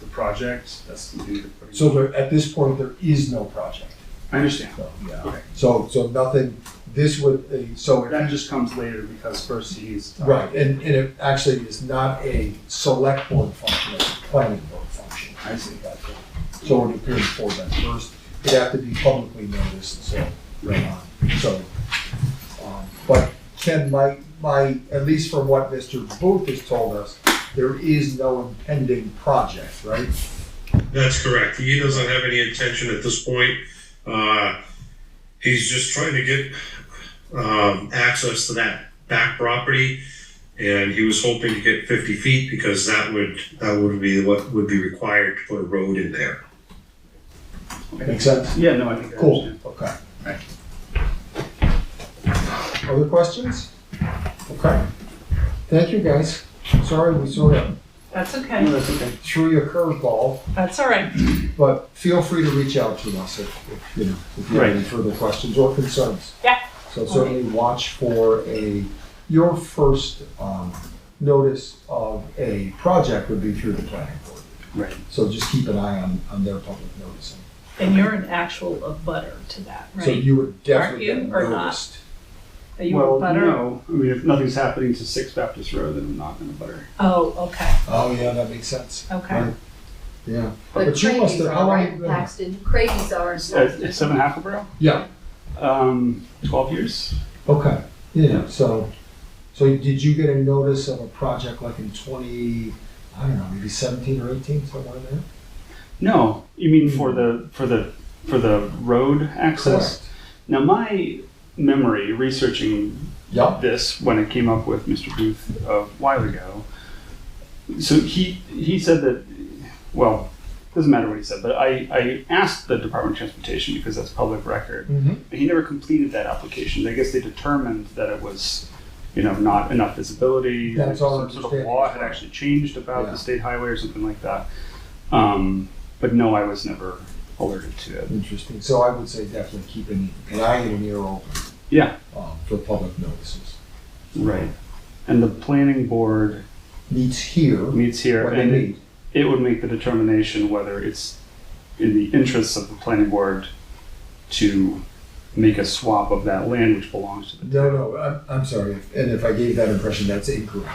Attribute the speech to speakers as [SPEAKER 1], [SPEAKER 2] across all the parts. [SPEAKER 1] the project, that's gonna be the.
[SPEAKER 2] So there, at this point, there is no project.
[SPEAKER 1] I understand.
[SPEAKER 2] So, yeah.
[SPEAKER 1] Okay.
[SPEAKER 2] So, so nothing, this would, uh, so it
[SPEAKER 1] That just comes later because first he's.
[SPEAKER 2] Right, and, and it actually is not a select board function, it's a planning board function.
[SPEAKER 1] I see.
[SPEAKER 2] So it appears for that first, it'd have to be publicly noticed, so,
[SPEAKER 1] Right.
[SPEAKER 2] uh, so. um, But Ken, my, my, at least from what Mr. Booth has told us, there is no impending project, right?
[SPEAKER 3] That's correct. He doesn't have any intention at this point. Uh, he's just trying to get um, access to that back property, and he was hoping to get 50 feet because that would that would be what would be required to put a road in there.
[SPEAKER 2] Makes sense?
[SPEAKER 1] Yeah, no, I think I
[SPEAKER 2] Cool,
[SPEAKER 1] understand.
[SPEAKER 2] okay.
[SPEAKER 1] Right.
[SPEAKER 2] Other questions? Okay. Thank you, guys. Sorry we sort of
[SPEAKER 4] That's
[SPEAKER 1] No,
[SPEAKER 4] okay.
[SPEAKER 1] that's okay.
[SPEAKER 2] threw you a curveball,
[SPEAKER 4] That's all right.
[SPEAKER 2] but feel free to reach out to us if, if, you know, if you have any further questions or concerns.
[SPEAKER 4] Yeah.
[SPEAKER 2] So certainly watch for a, your first, um, notice of a project would be through the planning board.
[SPEAKER 1] Right.
[SPEAKER 2] So just keep an eye on, on their public noticing.
[SPEAKER 4] And you're an actual abutter to that,
[SPEAKER 2] So
[SPEAKER 4] right?
[SPEAKER 2] you would definitely
[SPEAKER 4] you,
[SPEAKER 2] get
[SPEAKER 4] or not?
[SPEAKER 2] noticed.
[SPEAKER 4] Are you
[SPEAKER 1] well,
[SPEAKER 4] a butter?
[SPEAKER 1] no. I mean, if nothing's happening to Six Baptist Road, then I'm not gonna butter.
[SPEAKER 4] Oh, okay,
[SPEAKER 2] Oh, yeah, that makes sense.
[SPEAKER 4] okay.
[SPEAKER 2] Right. Yeah.
[SPEAKER 5] But
[SPEAKER 2] you must
[SPEAKER 5] Craigie's
[SPEAKER 2] have- how
[SPEAKER 5] are,
[SPEAKER 2] long you
[SPEAKER 5] right,
[SPEAKER 2] been-
[SPEAKER 5] Paxton? Craigie's are. in
[SPEAKER 1] At,
[SPEAKER 5] Salford.
[SPEAKER 1] at Uh, Seven Hackleboro,
[SPEAKER 2] Yeah,
[SPEAKER 1] um, twelve years.
[SPEAKER 2] okay, yeah,
[SPEAKER 1] Yeah.
[SPEAKER 2] so, so did you get a notice of a project like in twenty, I don't know, maybe seventeen or eighteen, somewhere in there?
[SPEAKER 1] No, you mean for the for the for the road access? Now, my memory researching
[SPEAKER 2] Yep,
[SPEAKER 1] this when it came up with Mr. Booth a while ago. So he he said that well, doesn't matter what he said, but I, I asked the Department of Transportation because that's public record.
[SPEAKER 2] mm-hmm,
[SPEAKER 1] But he never completed that application. I guess they determined that it was, you know, not enough visibility.
[SPEAKER 2] That's all
[SPEAKER 1] Some sort of
[SPEAKER 2] understanding.
[SPEAKER 1] law had actually changed about
[SPEAKER 2] Yeah.
[SPEAKER 1] the state highway or something like that. Um, but no, I was never alerted to it.
[SPEAKER 2] interesting, so I would say definitely keep an, an eye and an ear open.
[SPEAKER 1] Yeah.
[SPEAKER 2] Um, for public notices.
[SPEAKER 1] Right. And the planning board
[SPEAKER 2] Needs here,
[SPEAKER 1] meets here
[SPEAKER 2] what they
[SPEAKER 1] and it-
[SPEAKER 2] need,
[SPEAKER 1] it would make the determination whether it's in the interests of the planning board to make a swap of that land which belongs to the.
[SPEAKER 2] no, no, I'm, I'm sorry, if- and if I gave that impression, that's incorrect.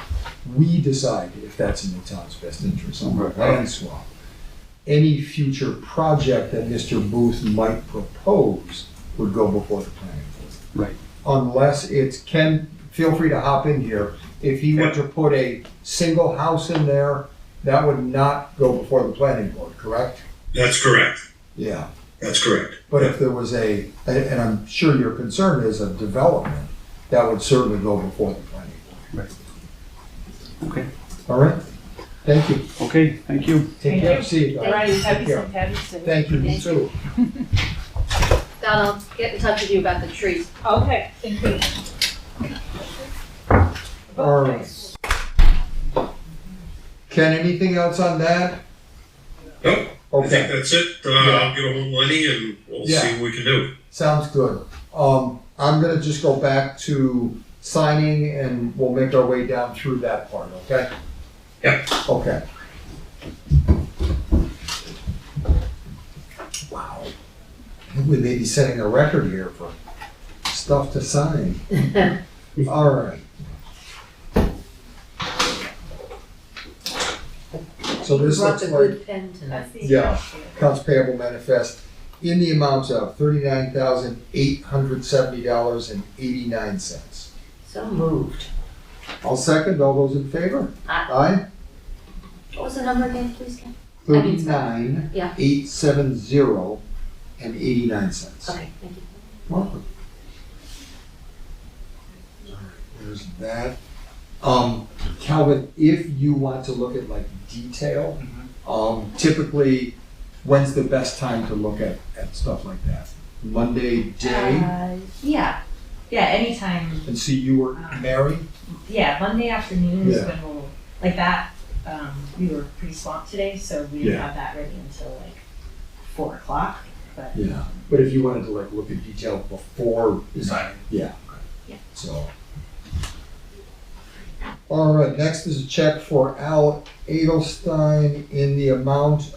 [SPEAKER 2] We decide if that's in the town's best interest on the
[SPEAKER 1] Right.
[SPEAKER 2] land swap. any future project that Mr. Booth might propose would go before the planning board.
[SPEAKER 1] Right.
[SPEAKER 2] Unless it's, Ken, feel free to hop in here. If he were to put a single house in there, that would not go before the planning board, correct?
[SPEAKER 3] That's correct.
[SPEAKER 2] Yeah.
[SPEAKER 3] That's correct.
[SPEAKER 2] But if there was a, and- and I'm sure your concern is a development, that would certainly go before the planning board.
[SPEAKER 1] Okay,
[SPEAKER 2] All right? Thank you.
[SPEAKER 1] okay, thank you.
[SPEAKER 2] Take
[SPEAKER 4] Thank
[SPEAKER 2] care.
[SPEAKER 4] you.
[SPEAKER 2] See you guys.
[SPEAKER 4] Right,
[SPEAKER 2] Take
[SPEAKER 4] happy,
[SPEAKER 2] care.
[SPEAKER 4] happy, happy.
[SPEAKER 2] Thank you, you
[SPEAKER 5] Thank you.
[SPEAKER 2] too.
[SPEAKER 5] Don, I'll get in touch with you about the trees.
[SPEAKER 4] Okay, thank you.
[SPEAKER 2] All right. Ken, anything else on that?
[SPEAKER 3] Nope. I think
[SPEAKER 2] Okay,
[SPEAKER 3] that's it. Uh, I'll get a hold of Lenny and we'll
[SPEAKER 2] Yeah.
[SPEAKER 3] see what we can do.
[SPEAKER 2] sounds good. Um, I'm gonna just go back to signing and we'll make our way down through that part, okay?
[SPEAKER 3] Yeah.
[SPEAKER 2] Okay. Wow. I think We may be setting a record here for stuff to sign. All right. So this
[SPEAKER 5] Brought
[SPEAKER 2] looks
[SPEAKER 5] the
[SPEAKER 2] like.
[SPEAKER 5] good pen tonight.
[SPEAKER 2] Yeah, accounts payable manifest in the amount of thirty-nine thousand eight hundred seventy dollars and eighty-nine cents.
[SPEAKER 5] So moved.
[SPEAKER 2] I'll second, all those in favor? Aye.
[SPEAKER 5] What was the number again, please, Ken? mean, it's
[SPEAKER 2] Thirty-nine,
[SPEAKER 5] Yeah.
[SPEAKER 2] eight seven zero and eighty-nine cents.
[SPEAKER 5] Okay, thank you.
[SPEAKER 2] Welcome. All right, There's that. Um, Calvin, if you want to look at like detail, um, typically, when's the best time to look at, at stuff like that? Monday day?
[SPEAKER 6] Uh, yeah, yeah, anytime.
[SPEAKER 2] And see, you were married?
[SPEAKER 6] Yeah, Monday afternoon is
[SPEAKER 2] Yeah.
[SPEAKER 6] when we'll, like that, um, we were pretty swamped today, so we didn't
[SPEAKER 2] Yeah.
[SPEAKER 6] have that ready until like four o'clock. But
[SPEAKER 2] Yeah. But if you wanted to like look at detail before designing? Yeah.
[SPEAKER 5] Yeah.
[SPEAKER 2] So. All right, next is a check for Al Edelstein in the amount